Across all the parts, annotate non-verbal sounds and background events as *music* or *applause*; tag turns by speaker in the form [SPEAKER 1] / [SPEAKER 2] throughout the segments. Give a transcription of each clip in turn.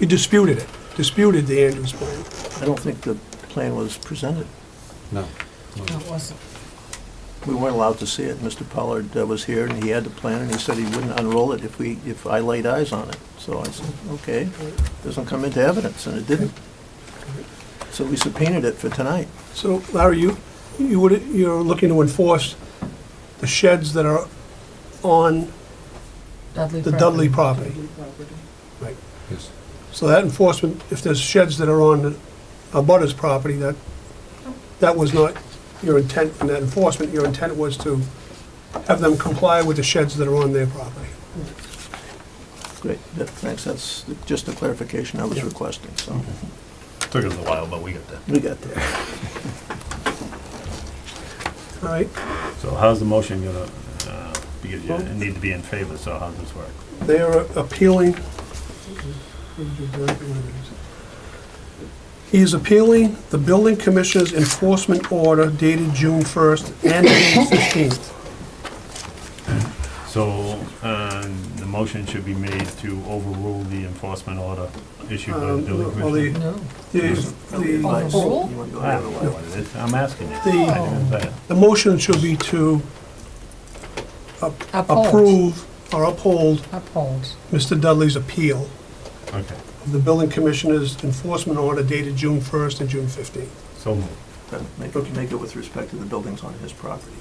[SPEAKER 1] We disputed it, disputed the Andrews plan.
[SPEAKER 2] I don't think the plan was presented.
[SPEAKER 3] No.
[SPEAKER 4] No, it wasn't.
[SPEAKER 2] We weren't allowed to see it. Mr. Pollard uh, was here, and he had the plan, and he said he wouldn't unroll it if we, if I laid eyes on it. So I said, okay, doesn't come into evidence, and it didn't. So we subpoenaed it for tonight.
[SPEAKER 1] So Larry, you, you would, you're looking to enforce the sheds that are on
[SPEAKER 4] Dudley
[SPEAKER 1] the
[SPEAKER 4] property.
[SPEAKER 1] Dudley property. Right.
[SPEAKER 3] Yes.
[SPEAKER 1] So that enforcement, if there's sheds that are on a butter's property, that, that was not your intent in that enforcement. Your intent was to have them comply with the sheds that are on their property.
[SPEAKER 2] Great, that- thanks, that's the- just the clarification I was
[SPEAKER 1] Yeah.
[SPEAKER 2] requesting, so
[SPEAKER 5] Took us a while, but we got there.
[SPEAKER 2] we got there.
[SPEAKER 1] All right,
[SPEAKER 5] So how's the motion gonna, uh, because you need to be in favor, so how's this work?
[SPEAKER 1] they are appealing. He is appealing the building commissioner's enforcement order dated June 1st and June 15th.
[SPEAKER 5] So, um, the motion should be made to overrule the enforcement order issued by the
[SPEAKER 1] Um,
[SPEAKER 5] building
[SPEAKER 1] well, the-
[SPEAKER 5] commissioner.
[SPEAKER 4] No.
[SPEAKER 1] The- the-
[SPEAKER 2] Advice.
[SPEAKER 4] Overrule?
[SPEAKER 2] You wanna go
[SPEAKER 5] I
[SPEAKER 2] the
[SPEAKER 5] don't
[SPEAKER 2] other
[SPEAKER 5] know
[SPEAKER 2] way?
[SPEAKER 5] what it is, I'm asking you.
[SPEAKER 1] The-
[SPEAKER 5] I didn't say it.
[SPEAKER 1] The motion should be to
[SPEAKER 4] Uphold.
[SPEAKER 1] approve or uphold
[SPEAKER 4] Uphold.
[SPEAKER 1] Mr. Dudley's appeal
[SPEAKER 5] Okay,
[SPEAKER 1] of the building commissioner's enforcement order dated June 1st and June 15th.
[SPEAKER 5] so moved.
[SPEAKER 2] Make it- make it with respect to the buildings on his property.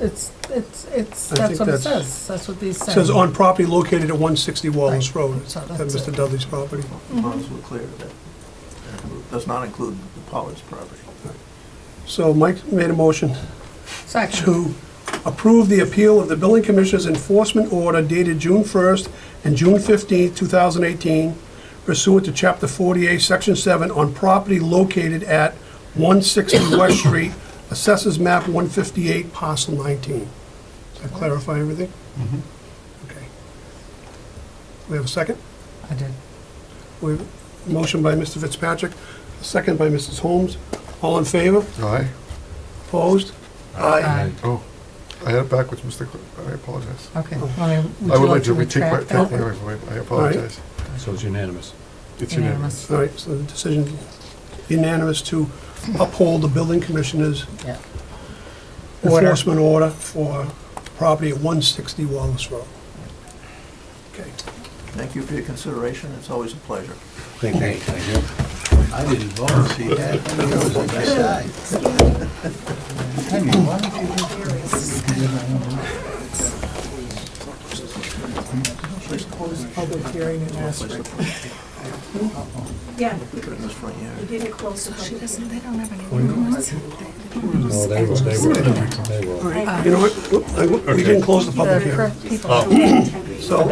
[SPEAKER 4] It's, it's, it's,
[SPEAKER 1] I think
[SPEAKER 4] that's what it
[SPEAKER 1] that's-
[SPEAKER 4] says. That's what these say.
[SPEAKER 1] It says on property located at 160 Wallace
[SPEAKER 4] Right.
[SPEAKER 1] Road,
[SPEAKER 4] So
[SPEAKER 1] that
[SPEAKER 4] that's
[SPEAKER 1] Mr.
[SPEAKER 4] it.
[SPEAKER 1] Dudley's property.
[SPEAKER 2] As long as we're clear of that. That Does not include the Pollard's property.
[SPEAKER 1] So Mike made a motion
[SPEAKER 4] Section.
[SPEAKER 1] to approve the appeal of the building commissioner's enforcement order dated June 1st and June 15th, 2018 pursuant to Chapter 48, Section 7, on property located at 160 West Street, Assessors Map 158, Parcel 19. Does that clarify everything? Okay. We have a second?
[SPEAKER 4] I did.
[SPEAKER 1] We have a motion by Mr. Fitzpatrick, a second by Mrs. Holmes. All in favor?
[SPEAKER 6] Aye.
[SPEAKER 1] Opposed?
[SPEAKER 4] Aye.
[SPEAKER 6] Oh, I had it backwards, Mr. Clerk. I apologize.
[SPEAKER 4] Okay.
[SPEAKER 1] Oh.
[SPEAKER 4] Well,
[SPEAKER 6] I would like to retake my,
[SPEAKER 4] retract
[SPEAKER 6] thank
[SPEAKER 4] that?
[SPEAKER 6] you, I apologize.
[SPEAKER 3] So it's unanimous.
[SPEAKER 6] It's
[SPEAKER 4] Unanimous.
[SPEAKER 1] All right, so the decision unanimous to uphold the building commissioner's
[SPEAKER 4] Yeah. Order.
[SPEAKER 1] enforcement order for property at 160 Wallace Road. Okay.
[SPEAKER 2] Thank you for your consideration, it's always a pleasure.
[SPEAKER 3] Thank you. Thank
[SPEAKER 7] I didn't vote, see that? I mean, I was on that side. I mean, why don't you just-
[SPEAKER 8] Yeah,
[SPEAKER 2] Put it in this front yard.
[SPEAKER 8] we didn't close the public hearing.
[SPEAKER 9] They don't have any rules.
[SPEAKER 3] you. No, they were, they were, they were.
[SPEAKER 1] You know what, I- we didn't close the public hearing,
[SPEAKER 6] Oh.
[SPEAKER 1] so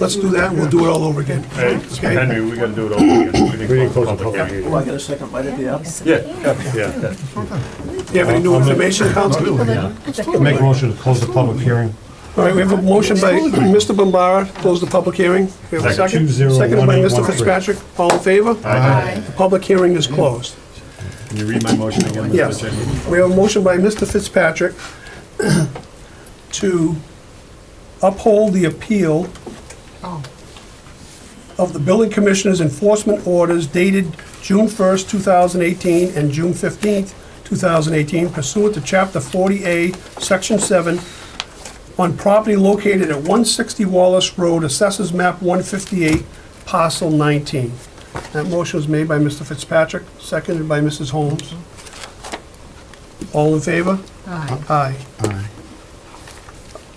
[SPEAKER 1] let's do that, and we'll do it all over again.
[SPEAKER 5] Hey, Henry, we gotta do it over again. We didn't close the public hearing.
[SPEAKER 2] Oh, I got a second bite at the apple?
[SPEAKER 5] Yeah, yeah.
[SPEAKER 1] Do you have any new information, Council?
[SPEAKER 3] Make a motion to close the public hearing.
[SPEAKER 1] All right, we have a motion by Mr. Bombara, close the public hearing. We have a second.
[SPEAKER 3] Two zero one
[SPEAKER 1] Seconded by
[SPEAKER 3] eight
[SPEAKER 1] Mr.
[SPEAKER 3] one three.
[SPEAKER 1] Fitzpatrick, all in favor? The public hearing is closed.
[SPEAKER 5] Can you read my motion again,
[SPEAKER 1] Yes.
[SPEAKER 5] Mr. Chairman?
[SPEAKER 1] We have a motion by Mr. Fitzpatrick *coughs* to uphold the appeal
[SPEAKER 4] Oh,
[SPEAKER 1] of the building commissioner's enforcement orders dated June 1st, 2018, and June 15th, 2018 pursuant to Chapter 40A, Section 7, on property located at 160 Wallace Road, Assessors Map 158, Parcel 19. That motion was made by Mr. Fitzpatrick, seconded by Mrs. Holmes. All in favor?
[SPEAKER 4] aye.
[SPEAKER 1] Aye.
[SPEAKER 6] Aye.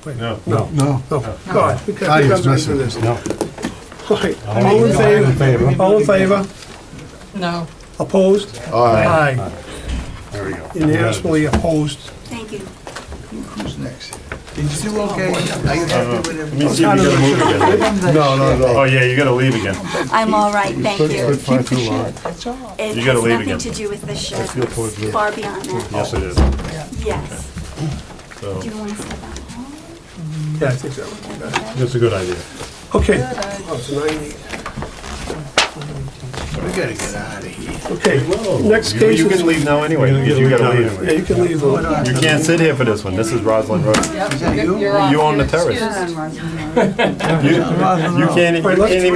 [SPEAKER 5] No.
[SPEAKER 3] No.
[SPEAKER 6] No.
[SPEAKER 1] No, God, we can't, we
[SPEAKER 6] Aye is
[SPEAKER 1] can't do
[SPEAKER 6] missing.
[SPEAKER 1] this.
[SPEAKER 3] No.
[SPEAKER 1] All right. All in favor? All in favor?
[SPEAKER 4] No.
[SPEAKER 1] Opposed?
[SPEAKER 6] Aye.
[SPEAKER 1] Aye.
[SPEAKER 3] There we go.
[SPEAKER 1] Unanimously opposed.
[SPEAKER 8] Thank you.
[SPEAKER 7] Who's next? Did you do okay? Are you happy with
[SPEAKER 5] Let me
[SPEAKER 7] everything?
[SPEAKER 5] see if you gotta move
[SPEAKER 1] *laughs*
[SPEAKER 5] again.
[SPEAKER 6] No, no,
[SPEAKER 5] Oh,
[SPEAKER 6] no.
[SPEAKER 5] yeah, you gotta leave again.
[SPEAKER 8] I'm all right, thank
[SPEAKER 6] Put-
[SPEAKER 8] you.
[SPEAKER 6] put five too long.
[SPEAKER 8] It
[SPEAKER 5] You gotta
[SPEAKER 8] has
[SPEAKER 5] leave
[SPEAKER 8] nothing
[SPEAKER 5] again.
[SPEAKER 8] to do with the shed,
[SPEAKER 6] feel towards
[SPEAKER 8] It's
[SPEAKER 6] the-
[SPEAKER 8] far beyond that.
[SPEAKER 5] Yes, it is.
[SPEAKER 8] Yes.
[SPEAKER 5] So,
[SPEAKER 8] Do you want to step out?
[SPEAKER 1] Yeah, I think so.
[SPEAKER 5] that's a good idea.
[SPEAKER 1] Okay,
[SPEAKER 7] We gotta get out of here.
[SPEAKER 1] okay. Next
[SPEAKER 5] You
[SPEAKER 1] case
[SPEAKER 5] you can
[SPEAKER 1] is,
[SPEAKER 5] leave now anyway. You gotta leave.
[SPEAKER 1] yeah, you can leave.
[SPEAKER 5] You can't sit here for this one. This is Roslyn Road.
[SPEAKER 7] Is that you?
[SPEAKER 5] You own the terrace. You you can't, you
[SPEAKER 1] Right, let's-
[SPEAKER 5] can't even